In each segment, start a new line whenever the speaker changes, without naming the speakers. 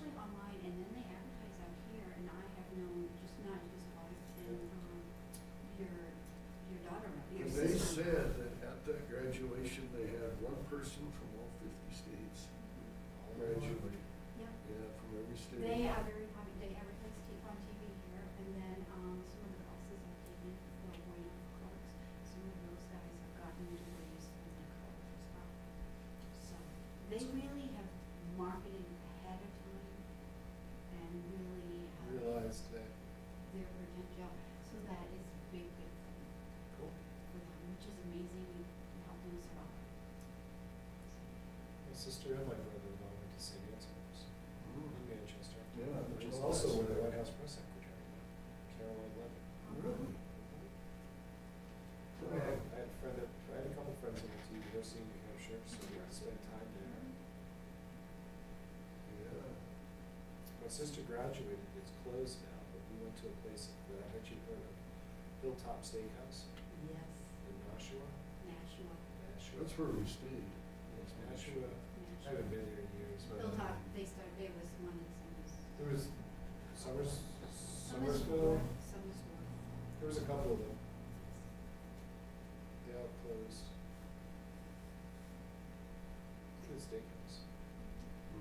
um, um,
Manchester, I might run the moment to see the answers. In
Mm-hmm.
Manchester.
Yeah,
Which
there's
is
a
also
lot.
where the White House press secretary, went, Caroline Levin.
Really?
I had I had a friend, that- I had a couple friends who went to University of New Hampshire, so we spent time there.
Yeah.
My sister graduated, it's closed now, but we went to a place that I bet you've heard of, Hilltop Steakhouse
Yes,
in Nashua.
Nashua.
Nashua.
That's where we stayed.
It's Nashua. I haven't been there in years, but.
Hilltop, they started, there was one in Summers.
There was Summers, Summersville,
Summersville.
there was a couple of them. They all closed. Good steakhouse.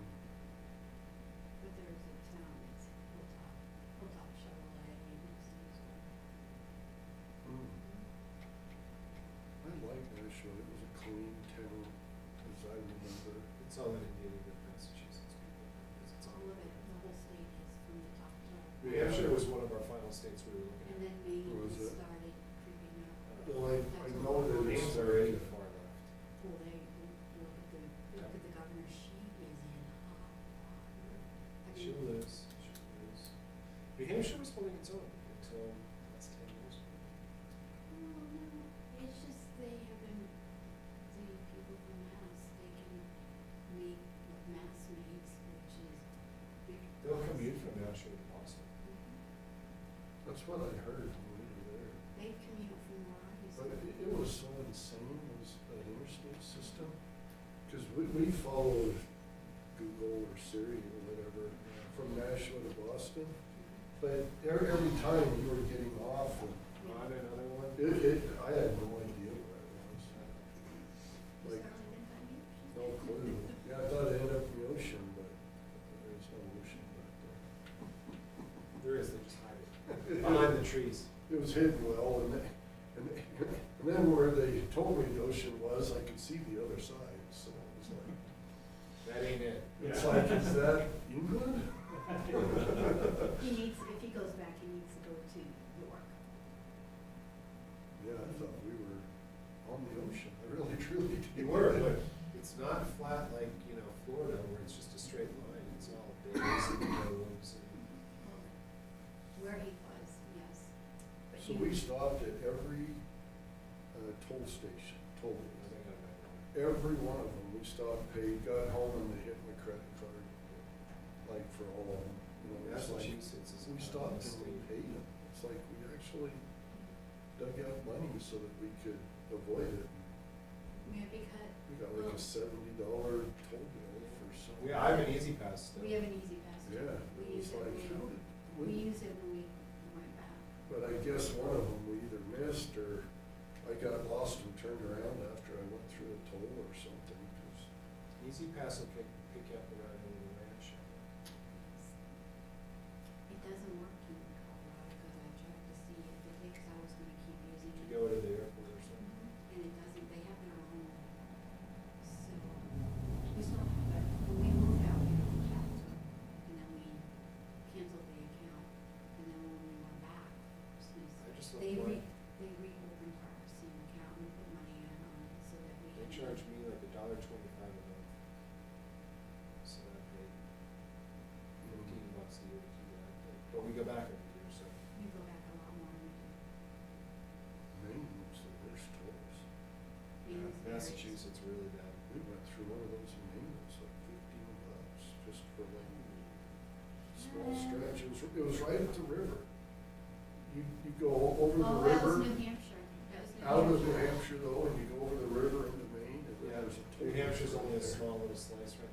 But there is a town, it's Hilltop, Hilltop Chevrolet, and it's Summersville.
Mm-hmm.
I Mm-hmm. like Nashua, it was a clean town, as I remember.
It's all in Indiana, but Massachusetts people. because it's all-
All of it, the whole state is from the top to.
New Hampshire was one of our final states we were
And
looking
then
at.
Maine
Where was
just
it?
started creeping up.
Well, I, I
Oh,
know that it's
Maine's
very,
already far left.
Well, they, look at the, look at the governor, she is in hot water. I
She
mean,
lives, she lives. New Hampshire was holding its own until last ten years.
Well, no, it's just they have been, the people from Mass, they can make what Mass makes, which is big.
They'll
bucks.
commute from Nashua to Boston.
Mhm.
that's what I heard when we were there.
They commute from Rockies.
But it, it was so insane, it was an interstate system, because we, we followed Google or Siri or whatever from Nashua to Boston, but every, every time you were getting off,
On another one?
it, it, I had no idea where I was. like, No clue. Yeah, I thought it ended up in the ocean, but there is no ocean back there.
There is, there's hiding. Behind the trees.
It was hidden well, and, they- and, they- and then where they told me the ocean was, I could see the other side, so it was like,
That ain't it.
It's like, is that England?
He needs, if he goes back, he needs to go to York.
Yeah, I thought we were on the ocean. I really, truly did.
You were, but it's not flat like, you know, Florida where it's just a straight line. It's all bays and groves and.
Where he was, yes. But
So
he-
we stopped at every uh, toll station, toll,
I think I might know.
every one of them. We stopped, paid, got home, and they hit my credit card, like for all of them. You know, it's like,
Massachusetts is.
we
not a
stopped and we
state.
paid them. It's like we actually dug out money so that we could avoid it.
Yeah, because.
We got like a
well,
seventy dollar toll bill for some.
We, I have an easy pass still.
We have an easy pass. too.
Yeah,
We
it
use
was
it
like, how did,
when, we
we,
use it when we went back.
but I guess one of them we either missed or I got lost and turned around after I went through a toll or something, 'cause
Easy pass will pick, pick you up around the ranch.
It doesn't work in Colorado, because I tried to see if it takes, I was gonna keep using
If
it.
you go to the airport or something.
And it doesn't, they have their own, so, we still have, but when we moved out, we don't have to, and then we canceled the account, and then when we went back, since
I just
they re,
looked like-
they reopened our same account and put money in on it, so that we. had-
They charge me like a dollar twenty-five a month. So I pay fifteen bucks a year to do that, but- but we go back every year, so.
We go back a lot more, than we do.
Maine was the worst tolls.
Maine is very-
Massachusetts really bad.
We went through one of those in Maine, it was like fifteen bucks just for like small stretch. It was, it was right at the river. You, you go over the
Oh, that
river,
was New Hampshire, that was New Hampshire.
out of New Hampshire though, and you go over the river into Maine and then
Yeah,
there's a toll.
New Hampshire's
right
only a
there.
small little slice right